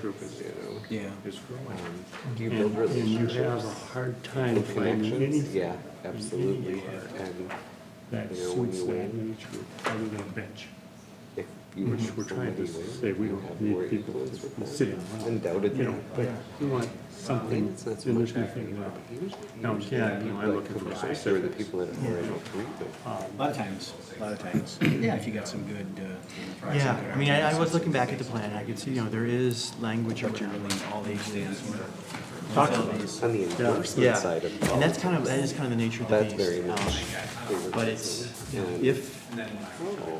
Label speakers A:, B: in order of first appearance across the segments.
A: group is, you know,
B: Yeah.
A: is growing.
C: Do you build
D: And and you have a
C: relationships?
D: hard time
C: and
D: finding
C: connections?
D: anything
C: Yeah, absolutely. And
D: that
C: you know, when
D: suits
C: you
D: that
C: win.
D: age group other than bench.
C: if you were
D: Which we're trying to say we don't need people sitting around.
C: Undoubtedly.
D: You know, but you want
C: I think
D: something,
C: it's not so
D: and
C: much
D: there's nothing
C: academic,
D: wrong.
C: but usually-
D: Now,
C: usually
D: again,
C: the
D: you know, I
C: people
D: look
C: that
D: for
C: come back Are the
D: specifics.
C: people that are already treated.
B: A lot of times, a lot of times. Yeah, if you got some good. uh,
E: Yeah, I mean, I, I was looking back at the
B: opportunities.
E: plan, and I could see, you know, there is language around all age things. Talk to them.
C: On the enforcement
E: Yeah,
C: side of.
E: and that's kind of, that is kind of the nature of the
C: That's
E: beast.
C: very
E: um,
C: much.
E: But it's, you know, if,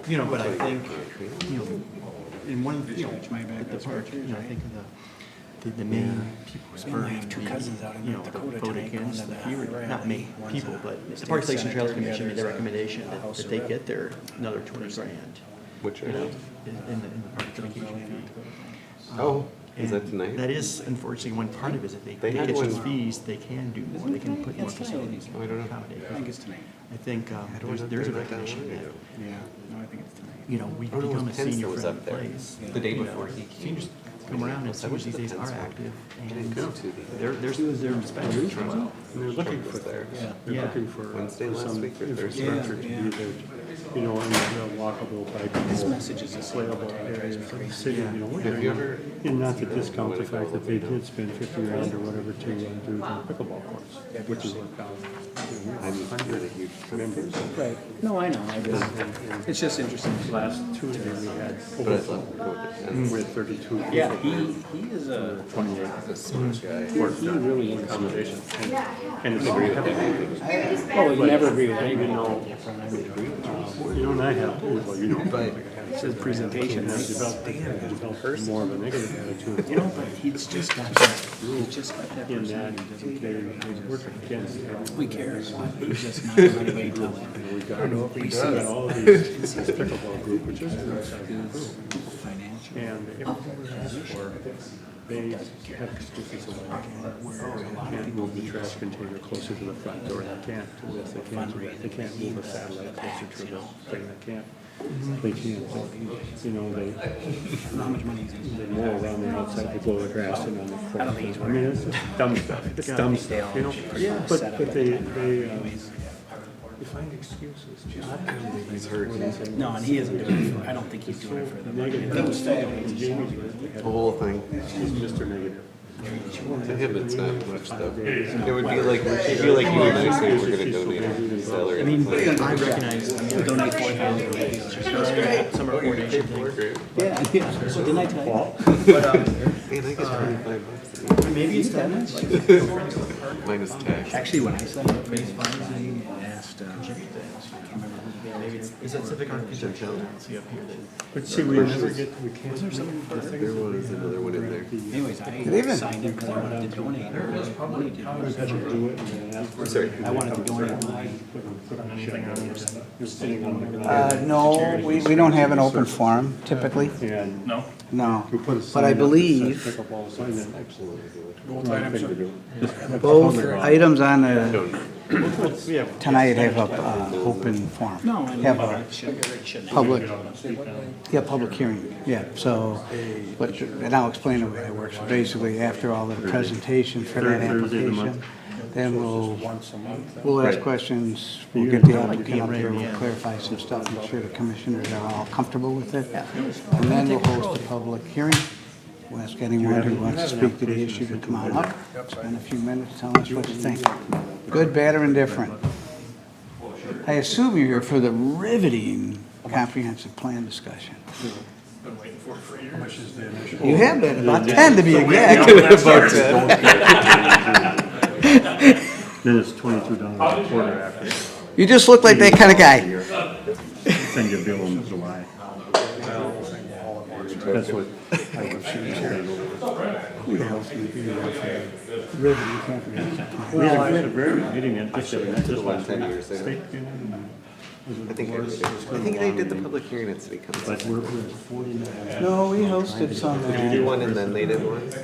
E: you know, but I think,
C: uh,
E: you know, in one, of the- you know, at the park, you know, I think of the, the, the main people spurring
B: have two cousins out
E: the,
B: in
E: you know, the
B: Dakota
E: vote
B: tonight going
E: against
B: to
E: the
B: the
E: fewer, not many
B: rally.
E: people,
B: One's a
E: but the
B: state
E: Parks Lakes and Trails
B: senator, the
E: Commission made
B: other's
E: their
B: a
E: recommendation that,
B: uh, House
E: that they
B: rep.
E: get their another twenty grand,
C: Which
E: you know,
C: are,
E: in, in the, in the park dedication fee.
C: oh, is that
E: And
C: tonight?
E: Um, That is unfortunately one part of it, is that they,
C: They
E: they
C: had
E: get those
C: one-
E: fees, they can do more, they can put more
B: That's right.
E: facilities
C: Oh, I don't
E: in
C: know.
E: accommodate.
B: I think it's tonight.
E: I think, um,
C: How do I
E: there's,
C: not
E: there's a
C: bring that down
E: recognition
C: when I
E: that,
C: do?
B: Yeah, no, I think it's tonight.
E: you know, we
C: Oh, no, it
E: become
C: was
E: a
C: Pence that
E: senior
C: was
E: friendly
C: up there
E: place.
C: the day
E: You know,
C: before he came.
E: Seniors come around and
C: I went
E: seniors
C: to
E: these
C: the
E: days are
C: Pence one.
E: active
C: I
E: and
C: didn't go to the-
E: they're, they're, they're respected.
D: And they're looking
C: Trump
D: for
C: was there.
D: that. They're
E: Yeah.
D: looking for
C: Wednesday
D: for
C: last
D: some
C: week or Thursday.
D: infrastructure to
B: Yeah,
D: be there, you know, and a walkable,
B: This
D: bikeable,
B: message is a
D: playable area for the city, you know.
C: Have you ever-
D: And not to discount the
C: Wanna go
D: fact that
C: look
D: they
C: it up?
D: did spend fifty grand or whatever to uh, do the pickleball course, which is worked out.
C: I'm not a huge member.
B: Right, no, I know, I just, it's just interesting.
D: Last Tuesday, we had
C: But I
D: over
C: love going to
D: we
C: Pence.
E: Mm.
D: had thirty-two people.
B: Yeah, he, he is uh, a,
C: He's a smart guy.
D: He really wants accommodation. And it's very
B: oh, you never agree with
D: You
B: anyone.
D: know, you know, and I have, well, you know.
C: But
B: It's his presentation.
D: And I've developed, I've developed more of a negative attitude.
B: You know, but he's just got that, he's just got that
D: In that,
B: personality.
D: they work against.
B: Who cares? He's just not letting anybody tell him.
D: We got we got all of these pickleball group, which is,
B: His financial,
D: and everyone has for, they have excuses about can't move the trash container closer to the front door, they can't do this, they can't do that, they can't move a satellite closer to the thing, they can't, they can't, you know, they,
B: how much money he's gonna
D: They mow around the outside, they blow the grass in on the front. I mean, it's just dumb stuff, it's dumb stuff, you know?
B: Yeah.
D: But, but they, they, um, they find excuses. He's hurt.
B: spend. No, and he isn't doing it, for- I don't think he's doing it for the money. That was
C: the whole thing.
D: He's Mr. Negative.
C: To him, it's not much though. It would be like, it'd be like you and I saying we're gonna donate our salary. I mean,
E: I recognize, I mean,
B: donate four thousand dollars.
E: some are coordination things.
B: Yeah, yeah, so didn't I tell you?
C: Man, I get twenty-five bucks an hour,
E: Maybe it's that much.
C: minus tax.
B: Actually, when I signed up for these funds, I asked, uh, I can't remember who the guy
E: Maybe it's, is that civic architecture? I don't see up here that-
D: But see, we never get, we can't.
C: There was another one in there.
B: Anyways, I signed up because I wanted to donate. Money to-
D: do it and then afterwards,
C: Sorry.
B: I wanted to donate my,
D: put on a check on it. You're sitting on the
F: Uh,
D: ground.
F: No, we, we don't have an open forum typically,
D: And
F: no.
D: we put a sign
F: But I
D: up that says
F: believe
D: Pickleball sign that. Wrong thing to do.
F: both items on the, tonight have a, uh, open forum.
B: no, I
F: Have a
B: shouldn't, shouldn't.
F: public, yeah, public hearing, yeah, so, but, and I'll explain the way it works. Basically, after all the presentation for that
D: Third Thursday of the month.
F: application, then we'll, we'll ask questions, we'll get
D: Right.
F: the applicant up here,
E: Yeah.
F: we'll clarify some stuff, make sure the commissioners are all comfortable with it. And then we'll host a public hearing. We'll ask anyone who wants to speak to the issue to come on up, spend a few minutes, tell us what you think. Good, bad, or indifferent. I assume you're here for the riveting comprehensive plan discussion. You have been, about 10 to be exact.
D: Then it's twenty-two dollars a quarter after.
F: You just look like that kind of guy.
D: Send your bill in July. That's what.
F: Riveting comprehensive plan.
D: We had a- we had a very good meeting at this, at this last
C: Ten
D: week.
C: years ago.
D: State union,
C: I think I did. it. I think I did the public hearing at city council.
D: But we're, we're forty-nine.
F: No, we hosted some. uh,
C: Did you do one and then they did one?